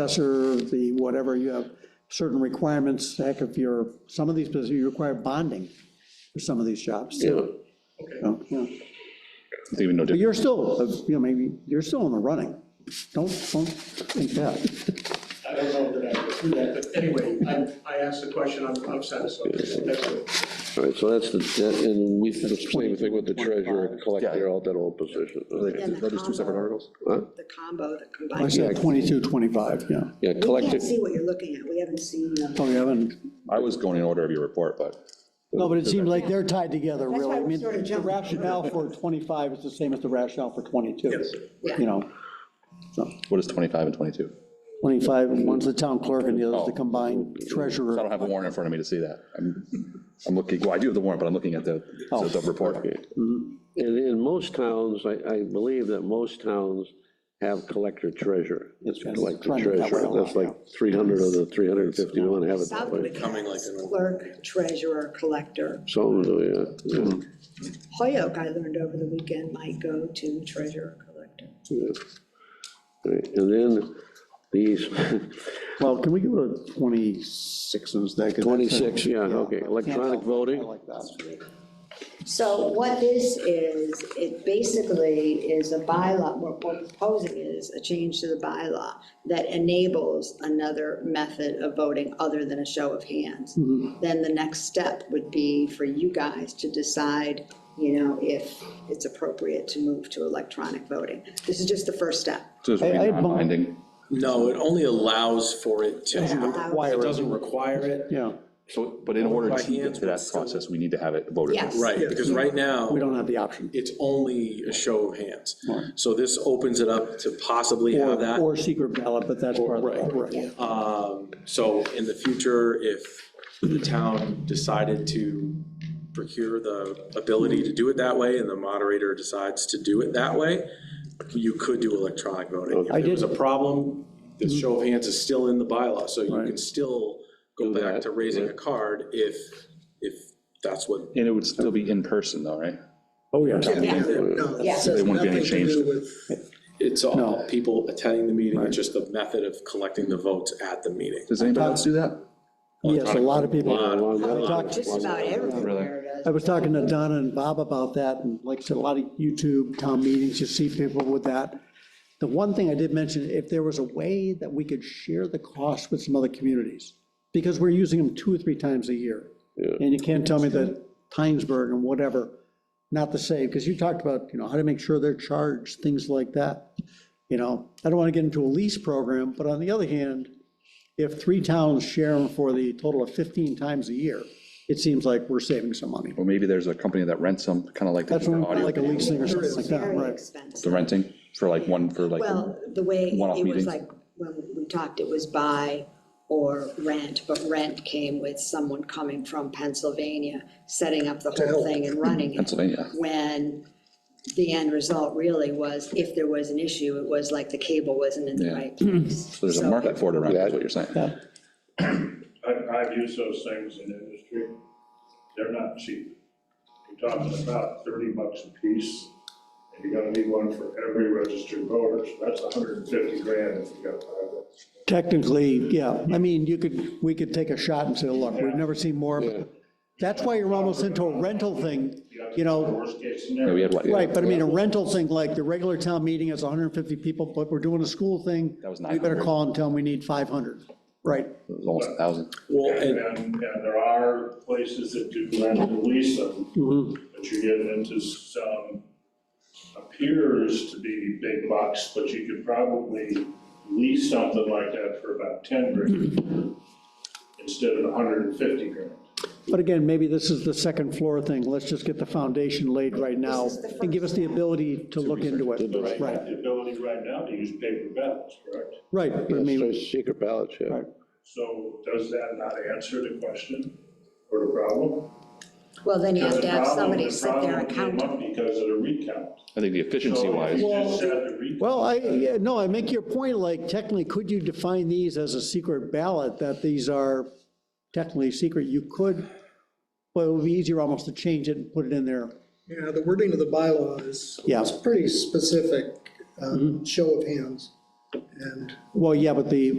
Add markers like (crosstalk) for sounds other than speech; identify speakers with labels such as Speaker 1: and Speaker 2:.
Speaker 1: assessor, the whatever, you have certain requirements, heck, if you're, some of these positions, you require bonding for some of these jobs.
Speaker 2: Yeah,
Speaker 1: So, yeah.
Speaker 2: it's even no
Speaker 1: But
Speaker 2: different.
Speaker 1: you're still, uh, you know, maybe, you're still in the running. Don't, don't think that.
Speaker 3: I don't know that I would do that, but anyway, I, I asked the question, I'm, I'm satisfied. That's it.
Speaker 4: All right, so that's the, that- and we, the same thing with the treasurer, collector, all that old position. okay.
Speaker 5: And the
Speaker 2: Are those two separate
Speaker 5: combo-
Speaker 2: articles?
Speaker 4: Huh?
Speaker 5: The combo, the
Speaker 1: I
Speaker 5: combined.
Speaker 1: said 22, 25, yeah.
Speaker 4: Yeah,
Speaker 5: We
Speaker 4: collector,
Speaker 5: can't see what you're looking at. We haven't seen them.
Speaker 1: Oh, you haven't,
Speaker 2: I was going in order of your report, but
Speaker 1: no, but it seems like they're tied together,
Speaker 5: That's
Speaker 1: really.
Speaker 5: why
Speaker 1: I
Speaker 5: we're
Speaker 1: mean,
Speaker 5: sort of
Speaker 1: the
Speaker 5: jumping.
Speaker 1: rationale for 25 is the same as the rationale for 22.
Speaker 3: Yes.
Speaker 5: Yeah.
Speaker 1: You know, so
Speaker 2: what is 25 and 22?
Speaker 1: 25, one's the town clerk and the other's
Speaker 2: Oh.
Speaker 1: the combined
Speaker 2: I
Speaker 1: treasurer.
Speaker 2: don't have the warrant in front of me to see that. I'm, I'm looking, well, I do have the warrant, but I'm looking at the, the
Speaker 1: Oh.
Speaker 2: the report.
Speaker 4: and in most towns, I, I believe that most towns have collector treasurer. It's
Speaker 1: Yes.
Speaker 4: collector
Speaker 1: Trending that way a
Speaker 4: treasurer,
Speaker 1: lot,
Speaker 4: that's like 300 of the 350, we want to have it that way.
Speaker 5: Southwick has clerk, treasurer, collector.
Speaker 4: So, yeah, yeah,
Speaker 5: Hoyoke, I learned over the weekend, might go to treasurer, collector.
Speaker 4: yeah. All right, And then these, (laughs)
Speaker 1: Well, can we go to 26 instead? 'Cause that's a-
Speaker 4: 26, yeah, okay,
Speaker 1: Can't
Speaker 4: electronic
Speaker 1: help it. I
Speaker 4: voting,
Speaker 1: like that.
Speaker 5: So what this is, it basically is a bylaw, what we're proposing is a change to the bylaw that enables another method of voting other than a show of hands.
Speaker 1: Mm-hmm.
Speaker 5: Then the next step would be for you guys to decide, you know, if it's appropriate to move to electronic voting. This is just the first step.
Speaker 2: So it's
Speaker 1: I- I
Speaker 2: not
Speaker 1: bump-
Speaker 2: binding.
Speaker 6: No, it only allows for it to happen. It
Speaker 1: Wire,
Speaker 6: doesn't require it.
Speaker 1: yeah,
Speaker 2: So, but in order
Speaker 6: By
Speaker 2: to get
Speaker 6: hands,
Speaker 2: to that
Speaker 6: but still-
Speaker 2: process, we need to have it voted.
Speaker 5: Yes.
Speaker 6: Right, because right now,
Speaker 1: we don't have the option.
Speaker 6: it's only a show of hands. So this opens it up to possibly have
Speaker 1: Or,
Speaker 6: that.
Speaker 1: or secret ballot, but that's part of
Speaker 6: Right.
Speaker 1: it, right.
Speaker 6: Um, So in the future, if the town decided to procure the ability to do it that way and the moderator decides to do it that way, you could do electronic voting.
Speaker 1: I
Speaker 6: If there was a
Speaker 1: did-
Speaker 6: problem, the show of hands is still in the bylaw, so you
Speaker 1: Right.
Speaker 6: can still go back
Speaker 4: that,
Speaker 6: to raising a card if, if that's what.
Speaker 2: And it would still be in person though, right?
Speaker 1: Oh, yeah.
Speaker 5: Yes.
Speaker 2: There wouldn't be any change. to-
Speaker 6: It's
Speaker 1: No.
Speaker 6: all people attending the meeting, it's just the method of collecting the votes at the meeting.
Speaker 2: Does anybody else do that?
Speaker 1: Yes, a lot of people,
Speaker 6: Lot.
Speaker 1: I talked,
Speaker 5: Just about everywhere it
Speaker 1: I
Speaker 5: does.
Speaker 1: was talking to Donna and Bob about that, and like I said, a lot of YouTube town meetings, you see people with that. The one thing I did mention, if there was a way that we could share the cost with some other communities, because we're using them two or three times a year. And you can't tell me that Tynesburg and whatever, not the same, because you talked about, you know, how to make sure they're charged, things like that. You know, I don't want to get into a lease program, but on the other hand, if three towns share them for the total of 15 times a year, it seems like we're saving some money.
Speaker 2: Or maybe there's a company that rents them, kind of like
Speaker 1: That's
Speaker 2: the
Speaker 1: what I'm-
Speaker 2: audio,
Speaker 1: like a leasing or something like that,
Speaker 5: Very
Speaker 1: right?
Speaker 5: expensive.
Speaker 2: the renting for like one, for like,
Speaker 5: Well, the way
Speaker 2: One-off
Speaker 5: it
Speaker 2: meetings.
Speaker 5: was like, when we talked, it was buy or rent, but rent came with someone coming from Pennsylvania, setting up the whole thing and running it.
Speaker 2: Pennsylvania.
Speaker 5: When the end result really was, if there was an issue, it was like the cable wasn't in the
Speaker 2: Yeah.
Speaker 5: right place.
Speaker 2: So there's a
Speaker 5: So-
Speaker 2: market for it around, that's what you're saying.
Speaker 1: Yeah.
Speaker 7: I've, I've used those things in industry. They're not cheap. You're talking about thirty bucks a piece, and you're gonna need one for every registered voter, so that's hundred and fifty grand if you got five of us.
Speaker 1: Technically, yeah, I mean, you could, we could take a shot and say, look, we've never seen more, but that's why you're almost into a rental thing, you know,
Speaker 7: Worst case
Speaker 2: Yeah, we
Speaker 7: scenario.
Speaker 2: had what?
Speaker 1: Right, but I mean, a rental thing, like the regular town meeting is 150 people, but we're doing a school thing.
Speaker 2: That was
Speaker 1: We better
Speaker 2: 900.
Speaker 1: call and tell them we need 500. Right.
Speaker 2: It was Almost a thousand.
Speaker 6: Well,
Speaker 7: And,
Speaker 6: and
Speaker 7: and and there are places that do rent and lease them, but you're getting into some, appears to be big bucks, but you could probably lease something like that for about ten grand instead of hundred and fifty grand.
Speaker 1: But again, maybe this is the second floor thing. Let's just get the foundation laid right now
Speaker 5: This is the
Speaker 1: and give us the ability to look into it.
Speaker 7: You have
Speaker 1: Right,
Speaker 7: The ability right now to use paper ballots, correct?
Speaker 1: right. I mean,
Speaker 4: Yes, secret ballots, yeah.
Speaker 1: right.
Speaker 7: So does that not answer the question or the problem?
Speaker 5: Well, then you have to have
Speaker 7: Because the problem-
Speaker 5: somebody
Speaker 7: the
Speaker 5: sit there and
Speaker 7: problem
Speaker 5: count.
Speaker 7: came up Because of the recount.
Speaker 2: I think the efficiency wise,
Speaker 7: So if you just had the recount,
Speaker 1: Well, I, yeah, no, I make your point, like technically, could you define these as a secret ballot, that these are technically secret? You could, but it would be easier almost to change it and put it in there.
Speaker 8: Yeah, the wording of the bylaw is,
Speaker 1: Yeah.
Speaker 8: is pretty specific, um, uh, show of hands.
Speaker 1: Well, yeah, but the,